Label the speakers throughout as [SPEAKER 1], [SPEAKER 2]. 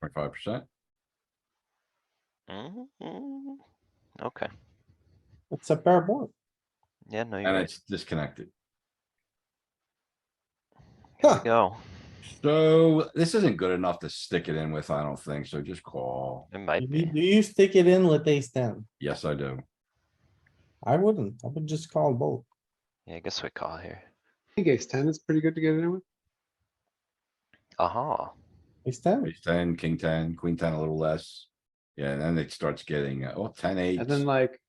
[SPEAKER 1] twenty-five percent.
[SPEAKER 2] Mhm. Okay,
[SPEAKER 3] It's a pair board.
[SPEAKER 2] yeah, no, you're
[SPEAKER 1] And
[SPEAKER 2] right.
[SPEAKER 1] it's disconnected.
[SPEAKER 2] Here we
[SPEAKER 3] Huh.
[SPEAKER 2] go.
[SPEAKER 1] So this isn't good enough to stick it in with, I don't think, so just call.
[SPEAKER 2] It
[SPEAKER 3] Do
[SPEAKER 2] might
[SPEAKER 3] you-
[SPEAKER 2] be.
[SPEAKER 3] do you stick it in with ace ten?
[SPEAKER 1] Yes, I do.
[SPEAKER 3] I wouldn't. I would just call both.
[SPEAKER 2] Yeah, I guess we call here.
[SPEAKER 4] think ace ten is pretty good to get in with.
[SPEAKER 2] Aha.
[SPEAKER 3] Ace ten,
[SPEAKER 1] Ace ten, king ten, queen ten a little less. Yeah, and then it starts getting, uh, oh, ten eight.
[SPEAKER 4] And then like,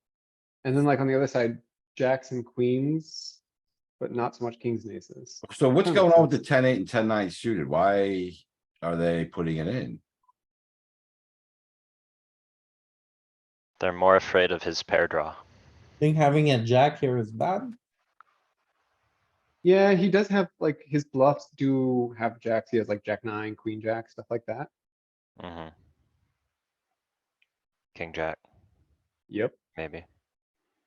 [SPEAKER 4] and then like on the other side, jacks and queens, but not so much kings and aces.
[SPEAKER 1] So what's
[SPEAKER 4] Hmm.
[SPEAKER 1] going on with the ten eight and ten nine suited? Why are they putting it in?
[SPEAKER 2] They're more afraid of his pair draw.
[SPEAKER 3] think having a jack here is bad.
[SPEAKER 4] Yeah, he does have like his bluffs do have jacks. He has like jack nine, queen jack, stuff like that.
[SPEAKER 2] hmm King jack,
[SPEAKER 4] Yep.
[SPEAKER 2] maybe.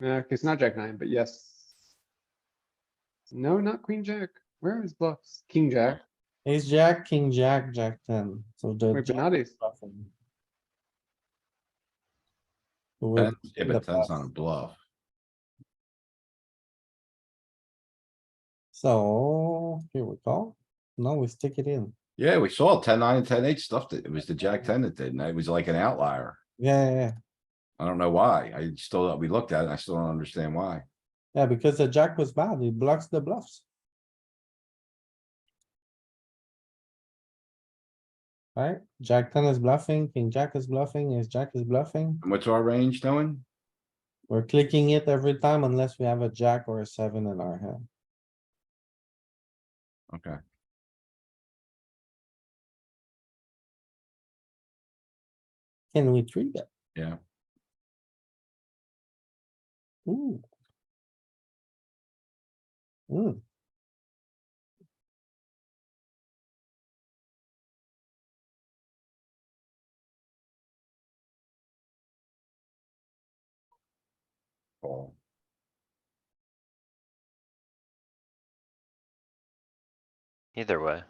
[SPEAKER 4] Uh, it's not jack nine, but yes. No, not queen jack. Where are his bluffs? King jack.
[SPEAKER 3] Ace jack, king jack, jack ten, so the.
[SPEAKER 4] Wait, but
[SPEAKER 3] jack
[SPEAKER 4] not
[SPEAKER 3] is
[SPEAKER 4] ace.
[SPEAKER 3] bluffing. So we're-
[SPEAKER 1] Ten- Yeah,
[SPEAKER 3] the
[SPEAKER 1] but ten's not a
[SPEAKER 3] bluff.
[SPEAKER 1] bluff.
[SPEAKER 3] So here we go. Now we stick it in.
[SPEAKER 1] Yeah, we saw ten nine and ten eight stuffed it. It was the jack ten that did, and it was like an outlier.
[SPEAKER 3] Yeah, yeah, yeah.
[SPEAKER 1] I don't know why. I still, we looked at it. and I still don't understand why.
[SPEAKER 3] Yeah, because the jack was bad. It blocks the bluffs. Right? Jack ten is bluffing, king jack is bluffing, ace jack is bluffing.
[SPEAKER 1] And what's our range doing?
[SPEAKER 3] We're clicking it every time unless we have a jack or a seven in our hand.
[SPEAKER 1] Okay,
[SPEAKER 3] Can we treat it?
[SPEAKER 1] yeah.
[SPEAKER 3] Ooh. Hmm,
[SPEAKER 1] Call.
[SPEAKER 2] Either way,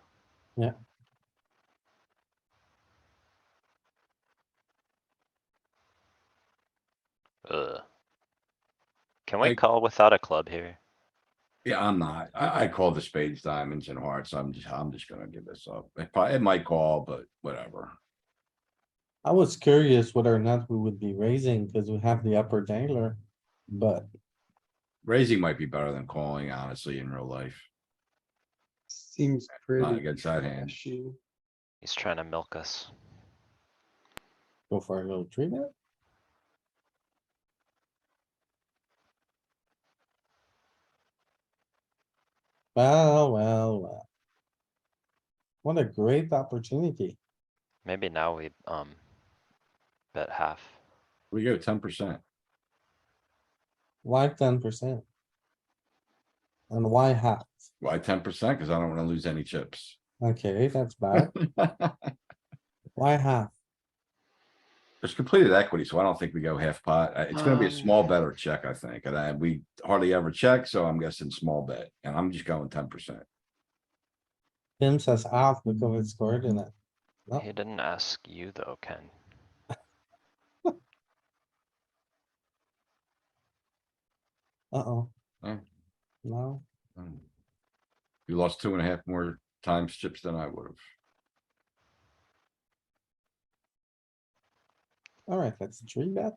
[SPEAKER 2] ugh. Can we
[SPEAKER 1] Like-
[SPEAKER 2] call without a club here?
[SPEAKER 1] Yeah, I'm not. I, I call the spades, diamonds and hearts. I'm just, I'm just gonna give this up. It probably, it might call, but whatever.
[SPEAKER 3] I was curious whether or not we would be raising because we have the upper dangler, but
[SPEAKER 1] Raising might be better than calling, honestly, in real life.
[SPEAKER 4] Seems
[SPEAKER 1] Not
[SPEAKER 4] pretty
[SPEAKER 1] against that hand.
[SPEAKER 4] trashy.
[SPEAKER 2] He's trying to milk us.
[SPEAKER 3] go for a little treat it. Well, well, well. What a great opportunity.
[SPEAKER 2] Maybe now we, um, bet half.
[SPEAKER 1] We go ten percent.
[SPEAKER 3] Why ten percent? And why half?
[SPEAKER 1] Why ten percent? Cause I don't wanna lose any chips.
[SPEAKER 3] Okay, that's bad. Why half?
[SPEAKER 1] It's completed equity, so I don't think we go half pot. Uh, It's gonna be a
[SPEAKER 2] Um.
[SPEAKER 1] small bet or check, I think, and I, we hardly ever check, so I'm guessing small bet, and I'm just going ten percent.
[SPEAKER 3] Tim says half because it's
[SPEAKER 1] Mm-hmm.
[SPEAKER 3] scored in it. Well-
[SPEAKER 2] He didn't ask you though, Ken.
[SPEAKER 3] Uh-oh.
[SPEAKER 1] Oh.
[SPEAKER 3] No,
[SPEAKER 1] You lost two and a half more times chips than I would have.
[SPEAKER 3] alright, that's a tree bet.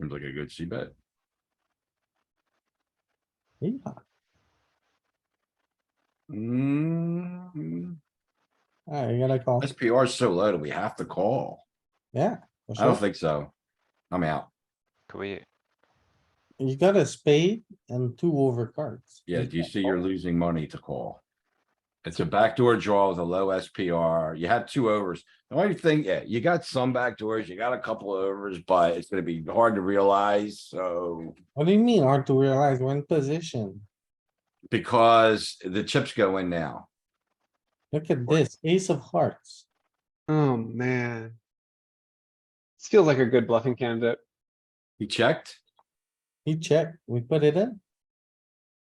[SPEAKER 1] Seems like a good C bet.
[SPEAKER 3] Yeah,
[SPEAKER 1] Mm,
[SPEAKER 3] alright, you gotta call.
[SPEAKER 1] SPR is so low that we have to call.
[SPEAKER 3] Yeah. for
[SPEAKER 1] I don't
[SPEAKER 3] sure.
[SPEAKER 1] think so. I'm out.
[SPEAKER 2] Could we,
[SPEAKER 3] You got a spade and two over cards.
[SPEAKER 1] Yeah, do you
[SPEAKER 3] can't
[SPEAKER 1] see you're
[SPEAKER 3] call.
[SPEAKER 1] losing money to call? It's a backdoor draw with a low SPR. You had two overs. The only thing, yeah, you got some backdoors, you got a couple of overs, but it's gonna be hard to realize, so.
[SPEAKER 3] What do you mean hard to realize? We're in position.
[SPEAKER 1] Because the chips go in now.
[SPEAKER 3] Look at this, ace of hearts.
[SPEAKER 4] Oh, man. This feels like a good bluffing candidate.
[SPEAKER 1] He checked?
[SPEAKER 3] He checked, we put it in.